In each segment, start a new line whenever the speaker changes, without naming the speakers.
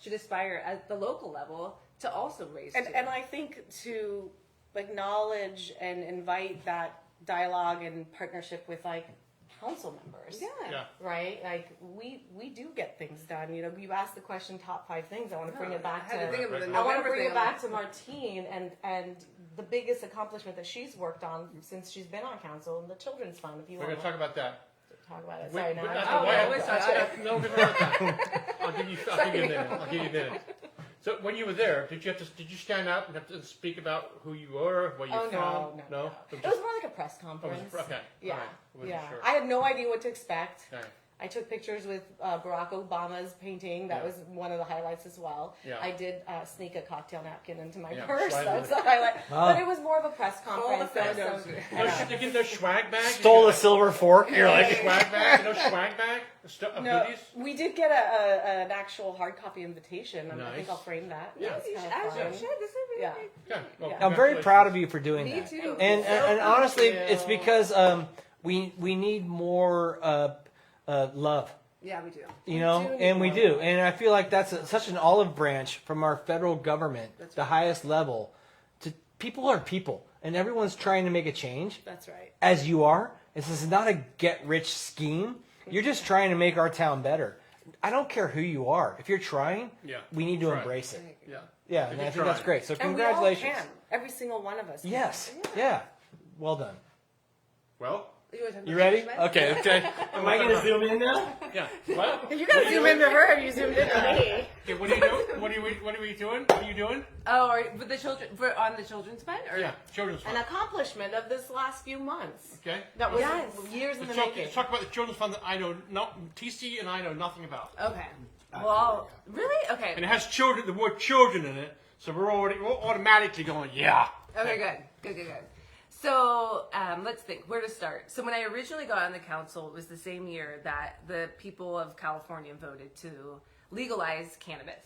should aspire at the local level to also raise
And,
students.
and I think to acknowledge and invite that dialogue and partnership with like council members.
yeah.
Yeah.
Right? Like we we do get things done. You know, you asked the question top five things. I want to bring it back
I had to think
to
of the
I
I want to
November
bring
thing.
it back to Martine and and the biggest accomplishment that she's worked on since she's been on council and the children's fund. If you
We're
want
going to talk about that.
to talk about it,
Wait,
sorry,
wait,
now I'm-
that's
Oh,
a- why-
no, we're
that's-
sorry.
that's- no, give her that. I'll give you. I'll give you a minute. I'll give you a minute. So when you were there, did you have to? Did you stand up and have to speak about who you were, where you're
Oh,
from?
no, no, no.
It Oh, was
It was more like a press conference.
okay, all right.
Yeah,
I wasn't
yeah.
sure.
I had no idea what to expect.
just- all right.
I took pictures with uh, Barack Obama's painting. That
Yeah.
was one of the highlights as well.
Yeah.
I did uh, sneak a cocktail napkin into my
Yeah,
purse.
slide
That
it
was
in.
a highlight.
Wow.
But it was more of a press conference.
the
There was
photos.
some-
No,
yeah.
sh- they give no swag bag.
Stole
You
a silver fork. You're
got a
like,
swag bag. No swag bag. Stu- of
No,
goodies?
we did get a, a, an actual hard copy invitation. and I
Nice.
think I'll frame that.
Yeah.
That's
You should-
kinda
as you
fun.
should. This would be
Yeah.
really-
Yeah, well,
Yeah.
I'm very
congratulations.
proud of you for doing
Me
that.
too.
And, and, uh, and honestly, it's
you.
because um, we we need more uh, uh, love,
yeah, we do.
you know,
do need
and we
more
do. And I feel like that's a, such an olive branch from our federal government,
That's
the
right.
highest level. To people are people, and everyone's trying to make a change,
That's right.
as you are. This is not a get rich scheme. You're just trying to make our town better. I don't care who you are. If you're trying,
Yeah.
we need to
Try.
embrace it.
Yeah.
Yeah,
If
and
you're
I think that's
trying.
great. So
And we all
congratulations.
can. Every single one of us. can.
Yes. Yeah. Well done.
Well,
You wanna talk
You
about
ready?
punishment?
Okay. Okay. Am I gonna zoom in now?
yeah. Well,
You gotta zoom into her. You zoomed into me.
okay, what are you doing? What are you? What are you doing? What are you doing?
Oh, or with the children for on the children's fund, or
Yeah, children's
An
fund.
accomplishment of this last few months.
Okay.
That was
Yes.
years in the
Let's talk,
making.
let's talk about the children's fund that I know no TC and I know nothing about,
okay. Well, really? Okay.
and it has children. The word children in it, so we're already we're automatically going yeah.
Okay, good, good, good, good. So um, let's think where to start. So when I originally got on the council, it was the same year that the people of California voted to legalize cannabis.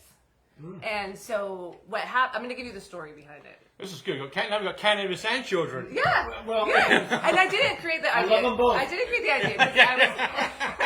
Hmm.
And so what happened? I'm going to give you the story behind it.
This is good. Can- Now we got cannabis and children.
Yeah.
Well-
yeah. and I didn't create the idea.
love them both.
I didn't create the idea. because I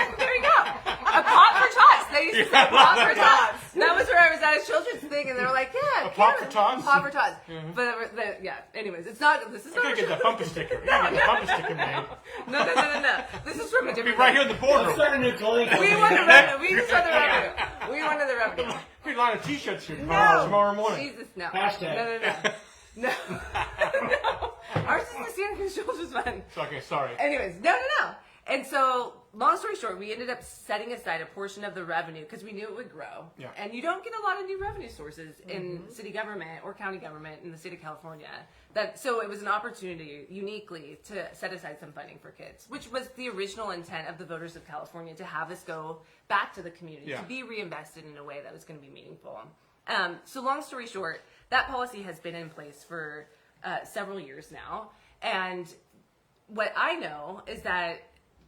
was, there you go. A pot for tots. They used to say pot for tots. That was where I was at a children's thing, and they were like, "Yeah,
A pot
yeah,
for tots? Mm-hmm.
Pot for tots." But the, yeah. Anyways, it's not. This is
I
not.
gotta
a
get that bumper sticker. You gotta get the bumper sticker made.
No, no, no, no, no. This is from a
Be
different.
right here in the boardroom.
a new
We want the revenue. We just want the revenue. We wanted the revenue.
We line of t-shirts here tomorrow,
No.
tomorrow morning.
Jesus, no.
Hashtag.
No, no, no. No. no. Ours is the Santa Children's Fund.
So, okay, sorry.
Anyways, no, no, no. And so, long story short, we ended up setting aside a portion of the revenue because we knew it would grow.
Yeah.
And you don't get a lot of new revenue sources in city government or county government in the state of California. That so it was an opportunity uniquely to set aside some funding for kids, which was the original intent of the voters of California to have this go back to the community
Yeah.
to be reinvested in a way that was going to be meaningful. Um, so, long story short, that policy has been in place for uh, several years now, and what I know is that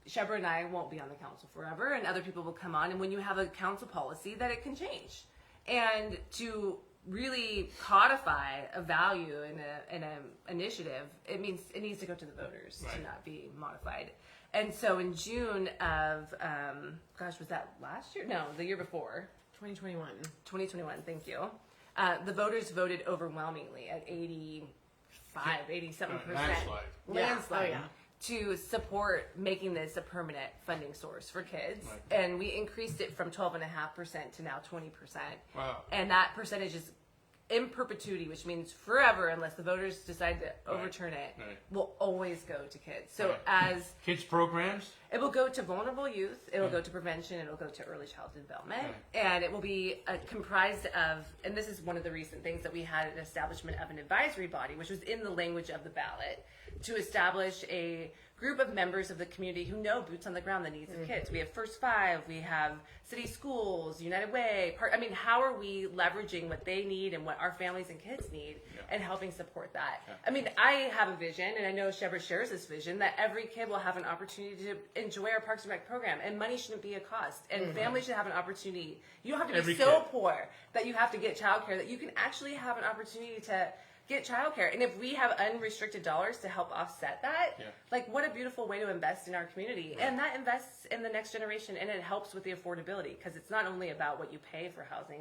Shebra and I won't be on the council forever, and other people will come on. And when you have a council policy, that it can change, and to really codify a value in a in a initiative, it means it needs to go to the voters
Right.
to not be modified. And so in June of um, gosh, was that last year? No, the year before.
2021.
2021, thank you. Uh, the voters voted overwhelmingly at 85, 87
Uh,
percent
landslide.
landslide
Yeah. Oh, yeah.
to support making this a permanent funding source for kids. And we increased it from 12.5% to now 20%.
Wow.
And that percentage is in perpetuity, which means forever, unless the voters decide to overturn it,
Right.
will always go to kids. So
Right.
as
Kids programs.
it will go to vulnerable youth. It will go to prevention. It will go to early childhood development, and it will be uh, comprised of. And this is one of the recent things that we had an establishment of an advisory body, which was in the language of the ballot, to establish a group of members of the community who know boots on the ground the needs of kids. We have First Five. We have city schools, United Way. Part, I mean, how are we leveraging what they need and what our families and kids need, and helping support that? I mean, I have a vision, and I know Shepard shares this vision that every kid will have an opportunity to enjoy our Parks and Rec program, and money shouldn't be a cost, and families should have an opportunity. You don't have to be
Mm-hmm. Every
so
kid.
poor that you have to get childcare that you can actually have an opportunity to get childcare, and if we have unrestricted dollars to help offset that,
Yeah.
like what a beautiful way to invest in our community, and that invests in the next generation, and it helps with the affordability because it's not only about what you pay for housing.